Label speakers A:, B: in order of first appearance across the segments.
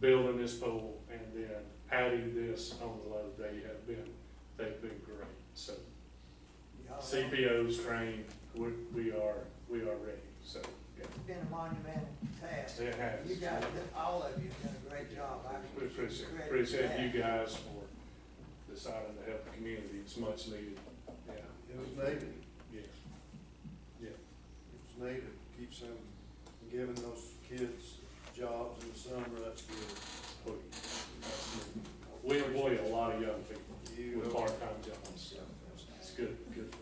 A: building this pole and then adding this on the load, they have been, they've been great. So
B: Oh,
A: CPO's trained, we, we are, we are ready, so, yeah,
B: It's been a monumental task.
A: it has.
B: You guys, all of you have done a great job. I
A: We Appreciate,
B: credit
A: appreciate
B: that.
A: you guys for deciding to help the community, it's much needed, yeah,
C: It was needed,
A: yes.
C: it was needed, keeps them, giving those kids jobs in the summer, that's good.
A: We- We employ a lot of young people
C: You-
A: with part-time jobs,
C: Yeah,
A: it's good, good for them.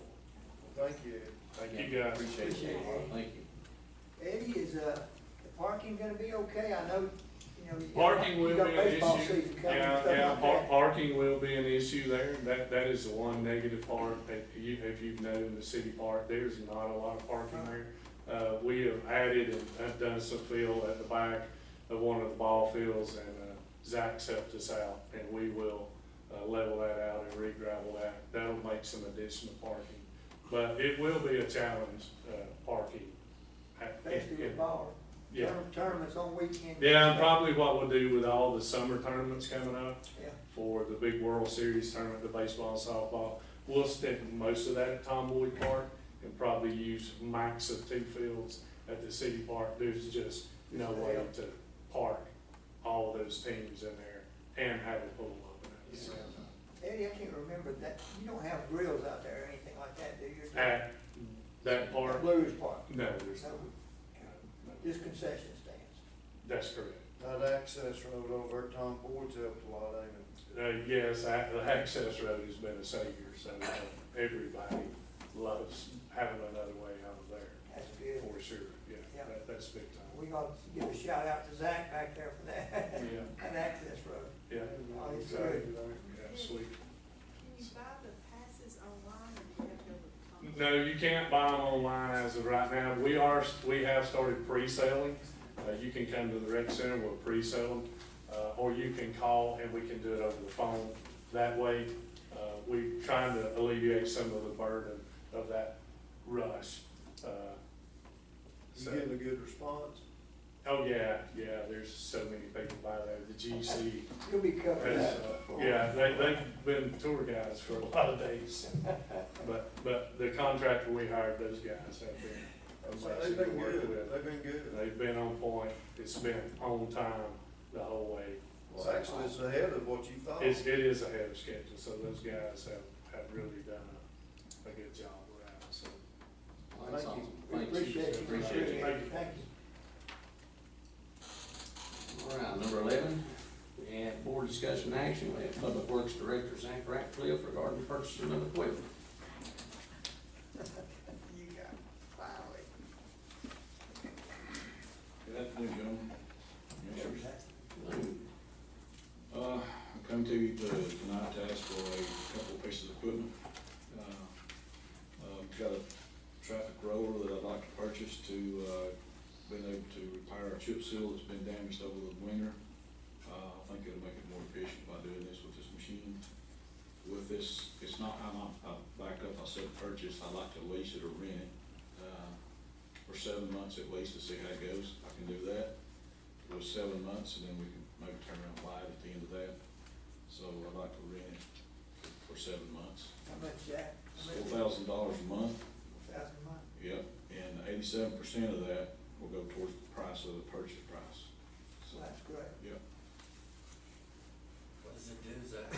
C: Thank you.
A: Thank you, guys.
D: Appreciate
B: Appreciate
D: it,
B: it.
D: thank you.
B: Eddie, is, uh, the parking gonna be okay? I know, you know. you got-
A: Parking will
B: you
A: be
B: got
A: an
B: baseball
A: issue.
B: season coming and
A: Yeah,
B: stuff
A: yeah,
B: like
A: par-
B: that.
A: parking will be an issue there. That, that is the one negative part that you, if you've known the city park, there's not a lot of parking there. Uh, we have added and have done some fill at the back of one of the ball fields and, uh, Zach's helped us out and we will, uh, level that out and re-gravel that. That'll make some additional parking. But it will be a challenge, uh, parking. at-
B: Especially with ball.
A: Yeah.
B: Tourna- Tournaments on weekends.
A: Yeah, and probably what we'll do with all the summer tournaments coming up
B: Yeah.
A: for the big World Series tournament, the baseball and softball, we'll stick most of that at Tom Boyd Park and probably use max of two fields at the city park. There's just no way to park all those teams in there and have a pool open. at the same time.
B: Eddie, I can't remember that, you don't have grills out there or anything like that, do you?
A: At that park,
B: Blue Ridge Park,
A: no, there's,
B: so,
A: no.
B: just concession stands.
A: that's correct.
C: That access road over at Tom Boyd's helped a lot, ain't it?
A: Uh, yes, ac- the access road has been a savior, so uh, everybody loves having another way out of there,
B: That's good.
A: for sure, yeah,
B: Yeah.
A: that, that's big time.
B: We gotta give a shout out to Zach back there for that,
A: Yeah,
B: that access road.
A: yeah,
B: Oh, it's
A: good.
C: Right.
A: yeah, sweet.
E: Can you buy the passes online or do you have to go to the company?
A: No, you can't buy them online as of right now, we are, we have started pre-selling, uh, you can come to the rec center, we'll pre-sell them, uh, or you can call and we can do it over the phone. That way, uh, we're trying to alleviate some of the burden of that rush, uh,
C: You getting a good response?
A: Oh, yeah, yeah, there's so many people by there, the GC,
B: You'll be covering
A: has,
B: that.
A: uh, yeah, they, they've been tour guides for a lot of days. But, but the contractor we hired, those guys have been
C: They've
A: amazing to
C: been
A: work
C: good,
A: with.
C: they've been good.
A: They've been on point, it's been on time the whole way.
C: Well, actually, it's ahead of what you thought.
A: It's, it is ahead of schedule, so those guys have, have really done a, a good job around, so.
D: Well, that's
C: Thank you.
D: awesome.
B: We
D: Thank you.
B: appreciate you.
D: Appreciate you.
B: Thank you. Thank you.
D: All right, number eleven, we have board discussion action, we have Public Works Director Zach Ratcliffe regarding purchasing of equipment.
B: You got finally.
F: Good afternoon, gentlemen. Commissioners. Uh, I come to you to- tonight to ask for a couple of pieces of equipment. Uh, uh, Got a traffic roller that I'd like to purchase to, uh, been able to repair our chip seal that's been damaged over the winter. Uh, I think it'll make it more efficient by doing this with this machine. With this, it's not, I'm, not- I backed up, I said purchase, I'd like to lease it or rent it. uh, For seven months at least to see how it goes. I can do that it was seven months, and then we can maybe turn around live at the end of that. So I'd like to rent it for seven months.
B: How much, Jack? How much
F: Four
B: is it?
F: thousand dollars a month,
B: Thousand a month.
F: yep, and eighty-seven percent of that will go towards the price of the purchase price. So,
B: So that's great.
F: yep,
G: What does it do, Zach?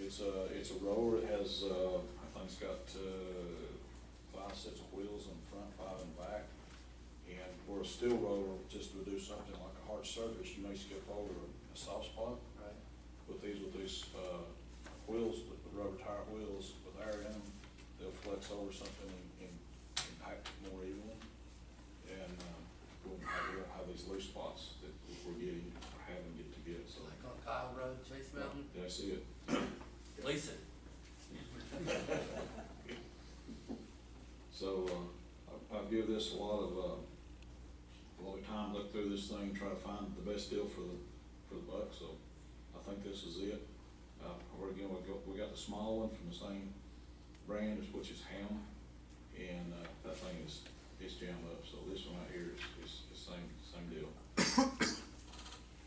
F: it's a, it's a roller, it has, uh, I think it's got, uh, five sets of wheels in front, five in back. And where a steel roller just would do something like a hard surface, you may skip over a soft spot. with these, with these, uh, wheels, with the rubber tire wheels with air in them, they'll flex over something and, and impact it more evenly. And, um, we won't have, we won't have these loose spots that we're getting, or having get to get,
G: It's
F: so.
G: like on Kyle Road, Chase Mountain,
F: Yeah, I see it.
G: lease it.
F: So, uh, I, I give this a lot of, uh, a lot of time, look through this thing, try to find the best deal for the, for the buck, so I think this is it. Uh, we're again, we got, we got the small one from the same brand, as which is Ham, and, uh, that thing is, it's jammed up, so this one right here is, is, is same, same deal.